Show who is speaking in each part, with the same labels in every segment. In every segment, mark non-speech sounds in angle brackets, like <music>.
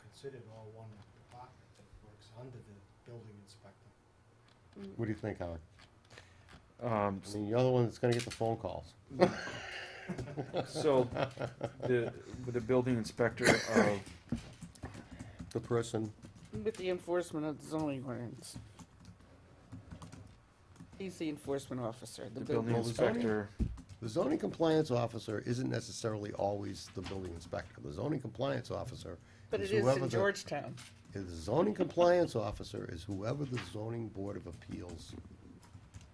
Speaker 1: considered all one department that works under the building inspector.
Speaker 2: What do you think, Howard?
Speaker 3: Um,
Speaker 2: I mean, you're the one that's gonna get the phone calls.
Speaker 3: so, the, with the building inspector of,
Speaker 2: The person,
Speaker 4: With the enforcement of the zoning ordinance. He's the enforcement officer, the
Speaker 3: <coughs> the building
Speaker 4: building.
Speaker 2: Well, the zoning-
Speaker 3: inspector,
Speaker 2: the zoning compliance officer isn't necessarily always the building inspector. The zoning compliance officer
Speaker 4: But
Speaker 2: is
Speaker 4: it is
Speaker 2: whoever
Speaker 4: in
Speaker 2: the-
Speaker 4: Georgetown.
Speaker 2: The zoning compliance officer is whoever the zoning board of appeals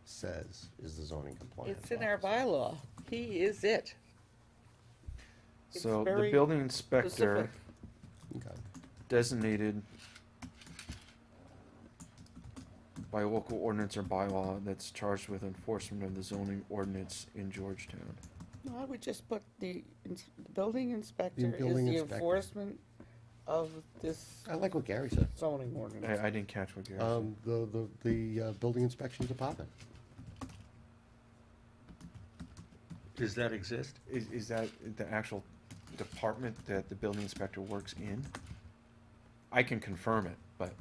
Speaker 2: says is the zoning compliance
Speaker 4: It's in our
Speaker 2: officer.
Speaker 4: bylaw. He is it. It's
Speaker 3: so the
Speaker 4: very
Speaker 3: building inspector
Speaker 4: specific.
Speaker 2: Okay.
Speaker 3: designated by local ordinance or bylaw that's charged with enforcement of the zoning ordinance in Georgetown.
Speaker 4: No, I would just put the ins- the building inspector is
Speaker 2: building
Speaker 4: the
Speaker 2: inspector.
Speaker 4: enforcement of this
Speaker 2: I like what Gary said.
Speaker 4: zoning ordinance.
Speaker 3: I, I didn't catch what Gary said.
Speaker 2: Um, the, the, the, uh, building inspection department.
Speaker 5: Does that exist?
Speaker 3: Is, is that the actual department that the building inspector works in? I can confirm it, but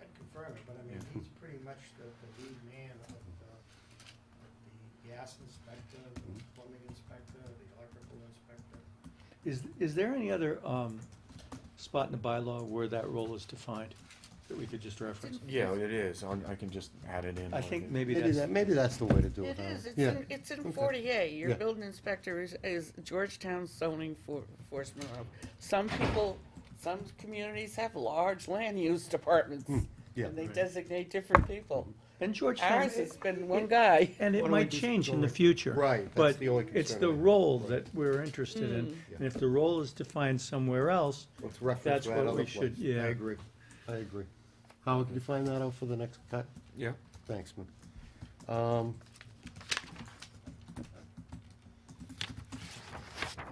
Speaker 1: I'd confirm it, but I mean,
Speaker 3: Yeah.
Speaker 1: he's pretty much the, the lead man of the, the gas inspector, the plumbing inspector, the electrical inspector.
Speaker 5: Is, is there any other um, spot in the bylaw where that role is defined that we could just reference?
Speaker 3: yeah, it is. I'm- I can just add it in.
Speaker 5: I
Speaker 3: when
Speaker 5: think
Speaker 3: it-
Speaker 5: maybe
Speaker 2: Maybe
Speaker 5: that's,
Speaker 2: that, maybe that's the way to do it.
Speaker 4: It
Speaker 2: huh?
Speaker 4: is, it's
Speaker 2: Yeah.
Speaker 4: in, it's in
Speaker 2: Okay.
Speaker 4: forty A. Your
Speaker 2: Yeah.
Speaker 4: building inspector is, is Georgetown zoning for, enforcement. of- Some people, some communities have large land use departments.
Speaker 2: Hmm. yeah.
Speaker 4: And they
Speaker 5: Right.
Speaker 4: designate different people.
Speaker 5: and Georgetown,
Speaker 4: Ours has been one guy.
Speaker 5: and
Speaker 2: Why
Speaker 5: it
Speaker 2: don't we
Speaker 5: might
Speaker 2: just
Speaker 5: change in
Speaker 2: go
Speaker 5: the
Speaker 2: with-
Speaker 5: future.
Speaker 2: Right, that's
Speaker 5: But
Speaker 2: the only
Speaker 5: it's
Speaker 2: concern
Speaker 5: the
Speaker 2: I have.
Speaker 5: role that we're interested in,
Speaker 4: Hmm.
Speaker 2: Yeah.
Speaker 5: and if the role is defined somewhere else,
Speaker 2: Let's reference
Speaker 5: That's
Speaker 2: that
Speaker 5: what
Speaker 2: other
Speaker 5: we
Speaker 2: place.
Speaker 5: should- yeah.
Speaker 2: I agree, I agree. Howard, can you find that out for the next cut?
Speaker 3: Yeah.
Speaker 2: Thanks, man. Um,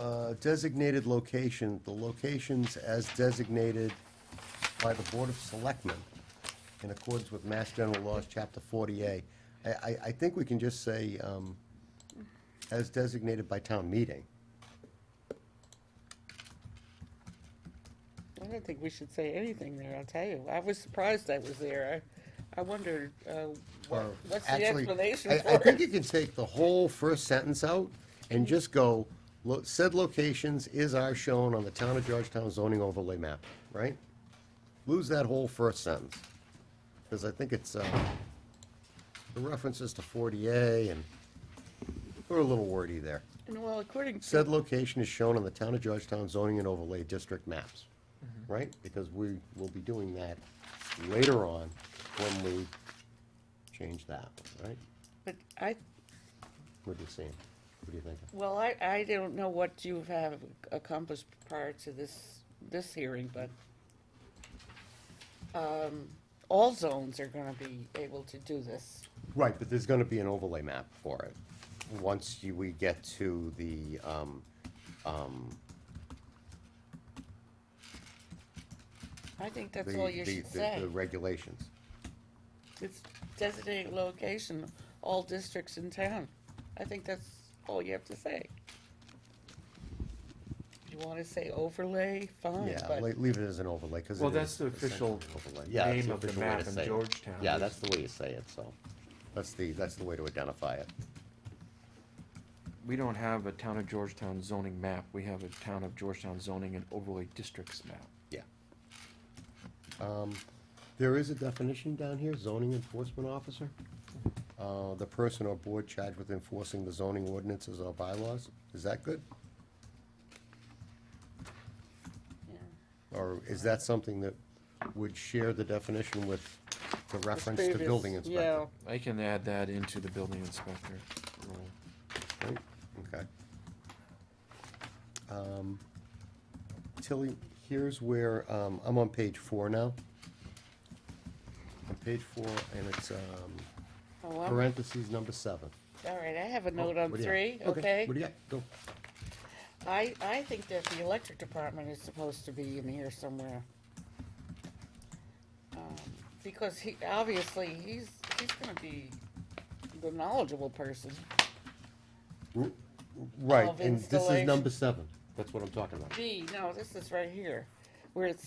Speaker 2: uh, Designated location, the locations as designated by the Board of Selectmen in accordance with Mass General Laws, Chapter 40A. I, I, I think we can just say, um, as designated by town meeting.
Speaker 4: I don't think we should say anything there, I'll tell you. I was surprised that was there. I, I wondered, uh, what-
Speaker 2: Or
Speaker 4: what's the
Speaker 2: actually,
Speaker 4: explanation
Speaker 2: I- I
Speaker 4: for
Speaker 2: think you
Speaker 4: it?
Speaker 2: can take the whole first sentence out and just go, "Lo- said locations is are shown on the town of Georgetown zoning overlay map, right? Lose that whole first sentence, because I think it's, uh, the references to forty A and, we're a little wordy there.
Speaker 4: And well, according
Speaker 2: Said
Speaker 4: to,
Speaker 2: location is shown on the town of Georgetown zoning and overlay district maps,
Speaker 4: Mm-hmm.
Speaker 2: right? Because we will be doing that later on when we change that, right?
Speaker 4: but I,
Speaker 2: What are you seeing? What do you think?
Speaker 4: well, I, I don't know what you have accomplished prior to this, this hearing, but, um, all zones are gonna be able to do this.
Speaker 2: Right, but there's gonna be an overlay map for it. Once you, we get to the, um, um,
Speaker 4: I think that's
Speaker 2: the-
Speaker 4: all you
Speaker 2: the-
Speaker 4: should
Speaker 2: the-
Speaker 4: say.
Speaker 2: The regulations.
Speaker 4: It's designated location, all districts in town. I think that's all you have to say. You wanna say overlay, fine,
Speaker 2: Yeah,
Speaker 4: but,
Speaker 2: like, leave it as an overlay, cause
Speaker 3: Well,
Speaker 2: it
Speaker 3: that's
Speaker 2: is
Speaker 3: the official
Speaker 2: essentially an overlay. Yeah, that's
Speaker 3: name of the
Speaker 2: official way
Speaker 3: map
Speaker 2: to
Speaker 3: in
Speaker 2: say it.
Speaker 3: Georgetown.
Speaker 2: Yeah, that's the way you say it, so, that's the, that's the way to identify it.
Speaker 3: We don't have a town of Georgetown zoning map, we have a town of Georgetown zoning and overlay districts map.
Speaker 2: Yeah. Um, There is a definition down here, zoning enforcement officer. Uh, The person or board charged with enforcing the zoning ordinances or bylaws. Is that good?
Speaker 4: Yeah.
Speaker 2: Or is that something that would share the definition with the reference to
Speaker 4: Previous-
Speaker 2: building inspector?
Speaker 3: I can add that into the building inspector role.
Speaker 2: Right? Okay. Um, Tilly, here's where, um, I'm on page four now. On page four, and it's, um,
Speaker 4: Yeah, oh, I'm-
Speaker 2: Parentheses number seven.
Speaker 4: all right, I have a note on
Speaker 2: Oh, What do you have?
Speaker 4: three, okay?
Speaker 2: What do you got? Go.
Speaker 4: I, I think that the electric department is supposed to be in here somewhere. Um, Because he, obviously, he's, he's gonna be the knowledgeable person.
Speaker 2: Right,
Speaker 4: Of
Speaker 2: and this is
Speaker 4: installation.
Speaker 2: number seven. That's what I'm talking about.
Speaker 4: B, no, this is right here, where it says